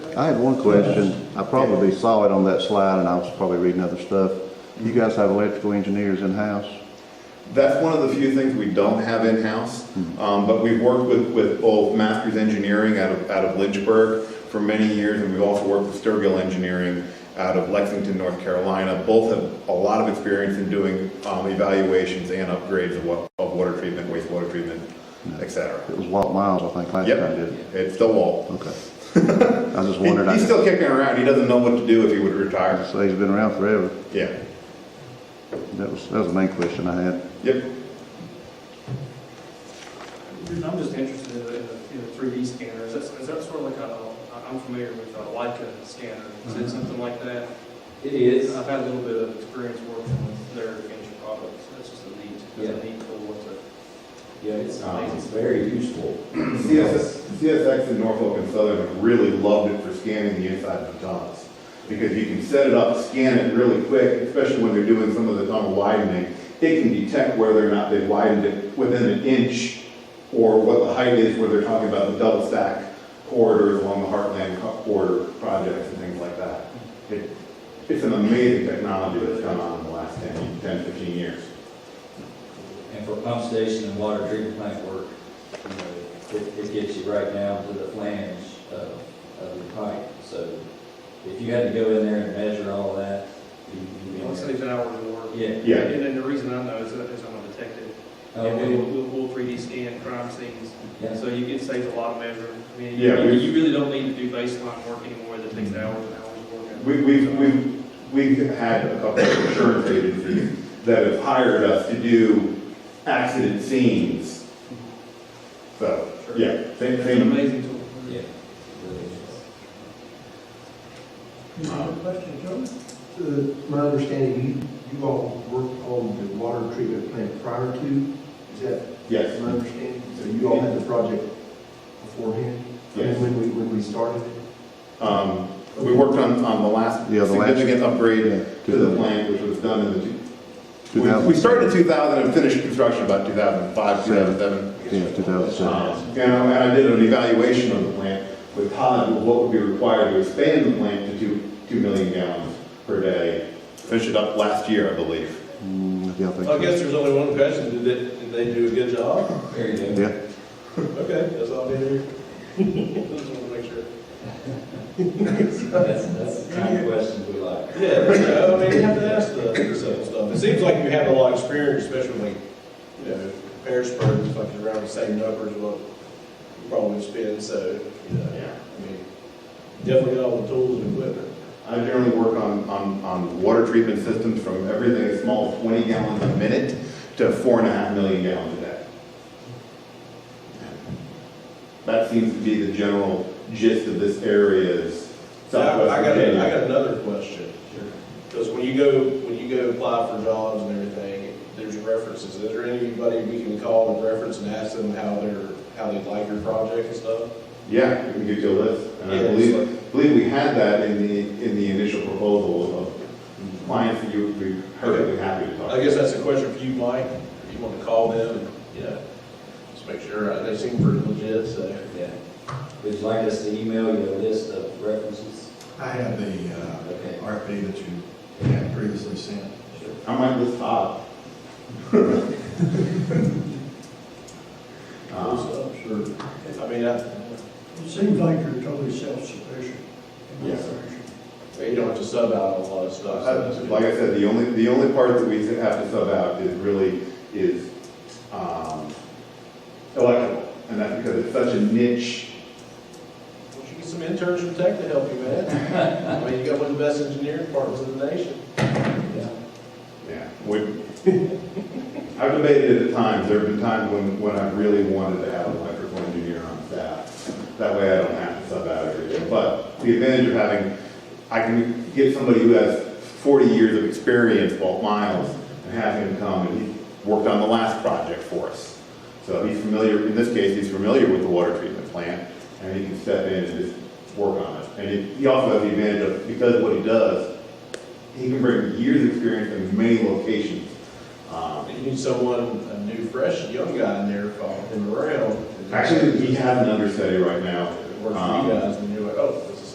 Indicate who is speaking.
Speaker 1: I had one question. I probably saw it on that slide and I was probably reading other stuff. You guys have electrical engineers in-house?
Speaker 2: That's one of the few things we don't have in-house, um, but we've worked with, with both Masters Engineering out of, out of Lynchburg for many years, and we've also worked with Sturgill Engineering out of Lexington, North Carolina. Both have a lot of experience in doing, um, evaluations and upgrades of wa, of water treatment, wastewater treatment, et cetera.
Speaker 1: It was Walt Miles, I think, last time,
Speaker 2: Yep,
Speaker 1: did it?
Speaker 2: it's still Walt.
Speaker 1: Okay. I just
Speaker 2: He-
Speaker 1: wondered, I
Speaker 2: He's
Speaker 1: so
Speaker 2: still kicking around, he doesn't know what to do if he would retire.
Speaker 1: he's been around forever.
Speaker 2: Yeah,
Speaker 1: That was, that was the main question I had.
Speaker 2: yep.
Speaker 3: I'm just interested in the, in the three D scanners, is that, is that sort of like a, I'm familiar with a Leica scanner, is
Speaker 2: Mm-hmm.
Speaker 3: it something like that?
Speaker 4: It is,
Speaker 3: I've had a little bit of experience working with their finished products, that's just a neat, that's a neat tool to.
Speaker 4: yeah, it's, um, it's very useful.
Speaker 2: CSX, CSX in Norfolk and Southern have really loved it for scanning the inside of the tunnels. Because you can set it up, scan it really quick, especially when they're doing some of the tunnel widening. It can detect whether or not they widened it within an inch or what the height is where they're talking about the double stack corridors along the Heartland co- corridor projects and things like that. It, it's an amazing technology that's gone on in the last 10, 10, 15 years.
Speaker 5: And for pump station and water treatment plant work, you know, it, it gets you right down to the flange of, of the pipe. So if you had to go in there and measure all that, you- you'd be
Speaker 3: It
Speaker 5: in there.
Speaker 3: saves hours of work.
Speaker 5: Yeah.
Speaker 2: Yeah.
Speaker 3: And then the reason I know is that is I'm a detective,
Speaker 5: Oh,
Speaker 3: and we will,
Speaker 5: we-
Speaker 3: we'll, we'll three D scan crime scenes,
Speaker 5: yeah.
Speaker 3: so you can save a lot of measuring. I mean,
Speaker 2: Yeah,
Speaker 3: you,
Speaker 2: we-
Speaker 3: you really don't need to do baseline work anymore that takes hours and hours of work.
Speaker 2: We, we've, we've, we've had a couple of insurance agencies that have hired us to do accident scenes. So, yeah, same,
Speaker 3: It's an
Speaker 2: same.
Speaker 3: amazing tool.
Speaker 5: Yeah. Really is.
Speaker 6: Any other
Speaker 2: uh,
Speaker 6: questions, John? My understanding, you, you all worked on the water treatment plant prior to, is that
Speaker 2: Yes,
Speaker 6: my understanding? So you all had the project beforehand?
Speaker 2: Yes.
Speaker 6: When we, when we started?
Speaker 2: um, we worked on, on the last
Speaker 1: Yeah, the last-
Speaker 2: significant upgrade to
Speaker 1: To
Speaker 2: the
Speaker 1: the
Speaker 2: plant, which was done in the, two-
Speaker 1: two
Speaker 2: we- we
Speaker 1: thousand,
Speaker 2: started in two thousand and finished construction about two thousand and five, two thousand and seven.
Speaker 1: yeah, two thousand seven.
Speaker 2: Um, And I and I did an evaluation of the plant with Todd, of what would be required to expand the plant to two, 2 million gallons per day. Finished it up last year, I believe.
Speaker 1: Mm, Yeah, I think
Speaker 7: I
Speaker 1: so.
Speaker 7: guess there's only one question, did they, did they do a good job?
Speaker 5: There you go.
Speaker 1: Yeah,
Speaker 7: Okay, that's all I did here. Just wanted to make sure.
Speaker 5: That's, that's the kind of questions we like.
Speaker 7: Yeah, you know, I mean, you have to ask the the simple stuff. It seems like you have a lot of experience, especially when, you know, Harrisburg is like around the same numbers what you probably spend, so, you know, I mean, definitely got all the tools and equipment.
Speaker 2: I generally work on, on, on water treatment systems from everything as small as 20 gallons a minute to four and a half million gallons a day. That seems to be the general gist of this area's
Speaker 7: Now, I
Speaker 2: Southwest
Speaker 7: got, a- I
Speaker 2: Virginia.
Speaker 7: got another question. Because when you go, when you go apply for jobs and everything, there's references. Is there anybody we can call and reference and ask them how they're, how they like your project and stuff?
Speaker 2: Yeah, we can get you a list. And I
Speaker 7: Yeah,
Speaker 2: believe, believe we had that in the, in the initial proposal of clients that you would be perfectly happy to talk
Speaker 7: I
Speaker 2: to.
Speaker 7: guess that's a question for you, Mike. If you want to call them, and, you know, just make sure. uh, They seem pretty legit, so.
Speaker 5: Yeah. Would you like us to email you a list of references?
Speaker 8: I have the uh,
Speaker 5: Okay.
Speaker 8: RFP that you had previously sent.
Speaker 2: I might list Todd. Um,
Speaker 7: so, I mean, I,
Speaker 8: It seems like you're totally self-sufficient.
Speaker 2: in this
Speaker 7: you don't have to sub out on a lot of stuff. so that's good.
Speaker 2: Like I said, the only, the only part that we have to sub out is really, is, um, electrical. And that's because it's such a niche
Speaker 7: Why don't you get some interns from Tech to help you, man? I mean, you got one of the best engineering departments in the nation.
Speaker 5: Yeah.
Speaker 2: Yeah, we, I've debated it at times, there have been times when, when I really wanted to have an electrical engineer on staff. That way I don't have to sub out everything, but the advantage of having, I can get somebody who has forty years of experience, Walt Miles, and have him come, and he worked on the last project for us. So he's familiar, in this case, he's familiar with the water treatment plant, and he can step in and just work on it. And he- he also has the advantage of, because of what he does, he can bring years of experience in many locations. Um,
Speaker 7: You need someone, a new, fresh, young guy in there following him around.
Speaker 2: Actually, we have an understudy right now.
Speaker 7: It works for you guys, and you're like, oh,